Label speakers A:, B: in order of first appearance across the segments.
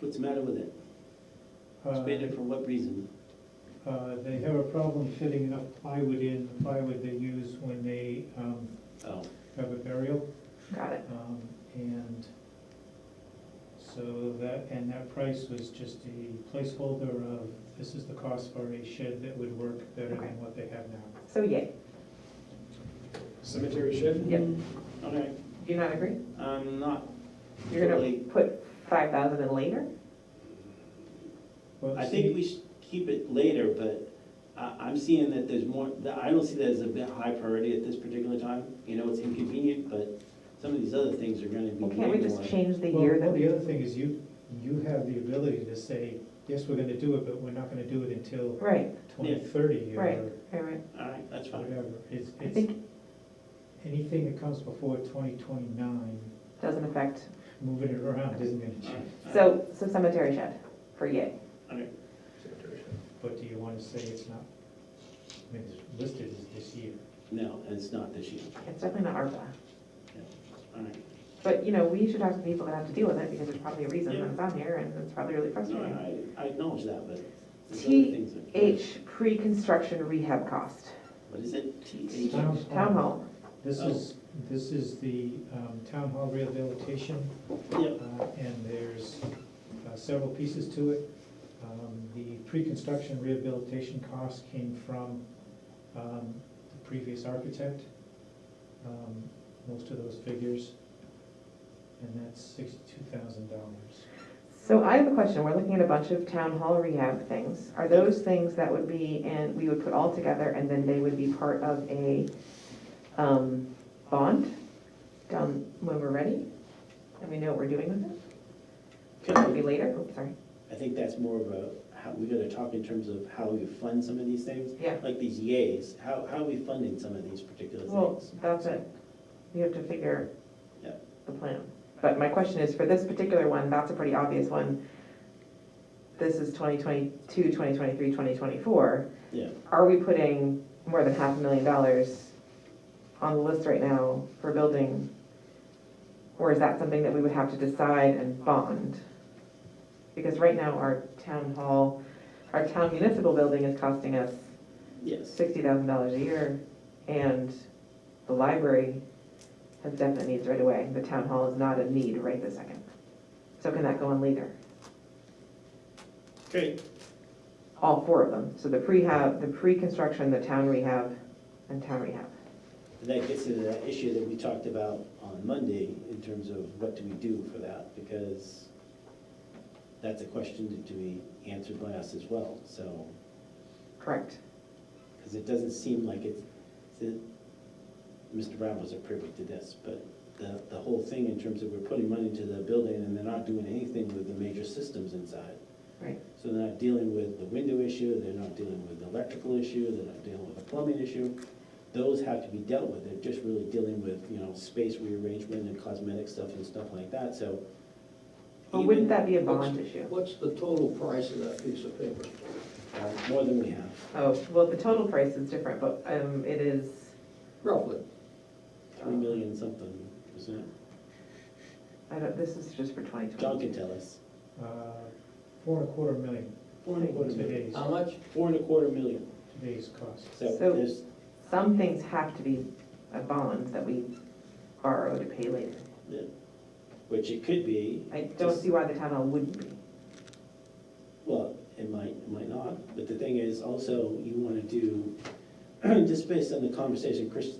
A: What's the matter with it?
B: Uh,
A: Expanded for what reason?
B: uh, They have a problem fitting enough plywood in, the plywood they use when they um,
A: Oh,
B: have a burial.
C: Got it.
B: um, And so that, and that price was just a placeholder of, this is the cost for a shed that would work better
C: Okay.
B: than what they have now.
C: So yay,
D: Cemetery shed?
C: yep.
D: Okay,
C: Do you not agree?
D: I'm not,
C: You're gonna
A: Totally.
C: put five thousand in later?
B: Well,
A: I
B: see,
A: think we should keep it later, but I, I'm seeing that there's more, that I don't see that as a bit high priority at this particular time. You know, it's inconvenient, but some of these other things are gonna be
C: Well, can't we
A: way
C: just
A: more.
C: change the
B: Well,
C: year
B: well,
C: that
B: the
C: we?
B: other thing is you, you have the ability to say, yes, we're gonna do it, but we're not gonna do it until
C: Right,
B: twenty thirty
C: Right.
B: or
C: right, right.
A: All right, that's fine.
B: whatever. It's,
C: I
B: it's,
C: think
B: anything that comes before twenty twenty-nine,
C: doesn't affect,
B: moving it around isn't gonna
A: All right,
B: change.
A: all right.
C: so, so cemetery shed for yay.
D: cemetery shed.
B: But do you wanna say it's not, I mean, it's listed as this year?
A: No, it's not this year.
C: It's definitely not ARPA.
A: All right.
C: But, you know, we should talk to people that have to deal with it because there's probably a reason
A: Yeah.
C: that it's on here and it's probably really
A: No,
C: frustrating.
A: I, I acknowledge that, but there's other
C: T
A: things that.
C: H, pre-construction rehab cost.
A: What is it? T H?
B: Town hall.
C: Town hall,
B: This is, this is the um, town hall rehabilitation, uh,
A: Yep,
B: and there's uh, several pieces to it. Um, The pre-construction rehabilitation costs came from um, the previous architect, um, most of those figures, and that's sixty-two thousand dollars.
C: So I have a question, we're looking at a bunch of town hall rehab things. Are those things that would be, and we would put all together, and then they would be part of a um, bond done when we're ready? And we know what we're doing with it? It'll be later, Oops, sorry.
A: I think that's more of a, how, we gotta talk in terms of how we fund some of these things.
C: Yeah.
A: Like these yays, how, how are we funding some of these particular
C: Well,
A: things?
C: that's it, you have to figure
A: Yeah.
C: the plan. But my question is, for this particular one, that's a pretty obvious one. This is 2022, 2023, 2024.
A: Yeah.
C: Are we putting more than half a million dollars on the list right now for building? Or is that something that we would have to decide and bond? Because right now, our town hall, our town municipal building is costing us
A: Yes,
C: sixty thousand dollars a year, and the library has definite needs right away. The town hall is not a need right this second. So can that go in later?
A: okay,
C: All four of them, so the prehab, the pre-construction, the town rehab, and town rehab.
A: that gets to that issue that we talked about on Monday in terms of what do we do for that? Because that's a question that to be answered by us as well, so,
C: Correct.
A: because it doesn't seem like it's, that Mr. Brown was a privy to this, but the, the whole thing in terms of we're putting money into the building and they're not doing anything with the major systems inside.
C: Right.
A: So they're not dealing with the window issue, they're not dealing with the electrical issue, they're not dealing with the plumbing issue. Those have to be dealt with, they're just really dealing with, you know, space rearrangement and cosmetic stuff and stuff like that, so.
C: But wouldn't
A: even-
C: that be a bond issue?
E: What's the total price of that piece of paper?
A: uh, More than we have,
C: Oh, well, the total price is different, but um, it is,
E: Roughly.
A: three million something, isn't it?
C: I don't, this is just for twenty
A: John
C: twenty.
A: can tell us.
B: Uh, Four and a quarter million,
A: Four and a quarter million.
B: today's,
E: How much?
A: Four and a quarter million,
B: today's cost.
A: so
C: So-
A: there's,
C: Some things have to be a bond that we borrow to pay later.
A: which it could be,
C: I don't see why the town hall wouldn't be.
A: Well, it might, it might not, but the thing is also, you wanna do, just based on the conversation Chris,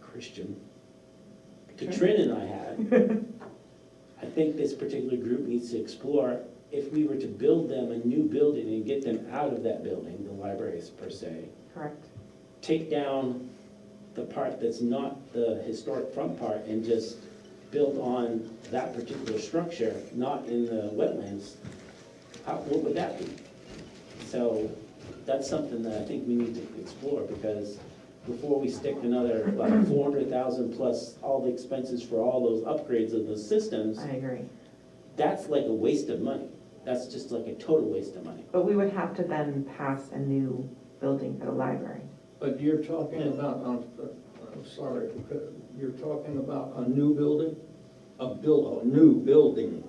A: Christian, Katrin and I had, I think this particular group needs to explore, if we were to build them a new building and get them out of that building, the libraries per se,
C: Correct.
A: take down the part that's not the historic front part and just build on that particular structure, not in the wetlands, how, what would that be? So that's something that I think we need to explore because before we stick another, like, four hundred thousand plus all the expenses for all those upgrades of those systems,
C: I agree.
A: that's like a waste of money. That's just like a total waste of money.
C: But we would have to then pass a new building for the library.
E: But you're talking about, I'm, I'm sorry, you're talking about a new building? A build, a new building.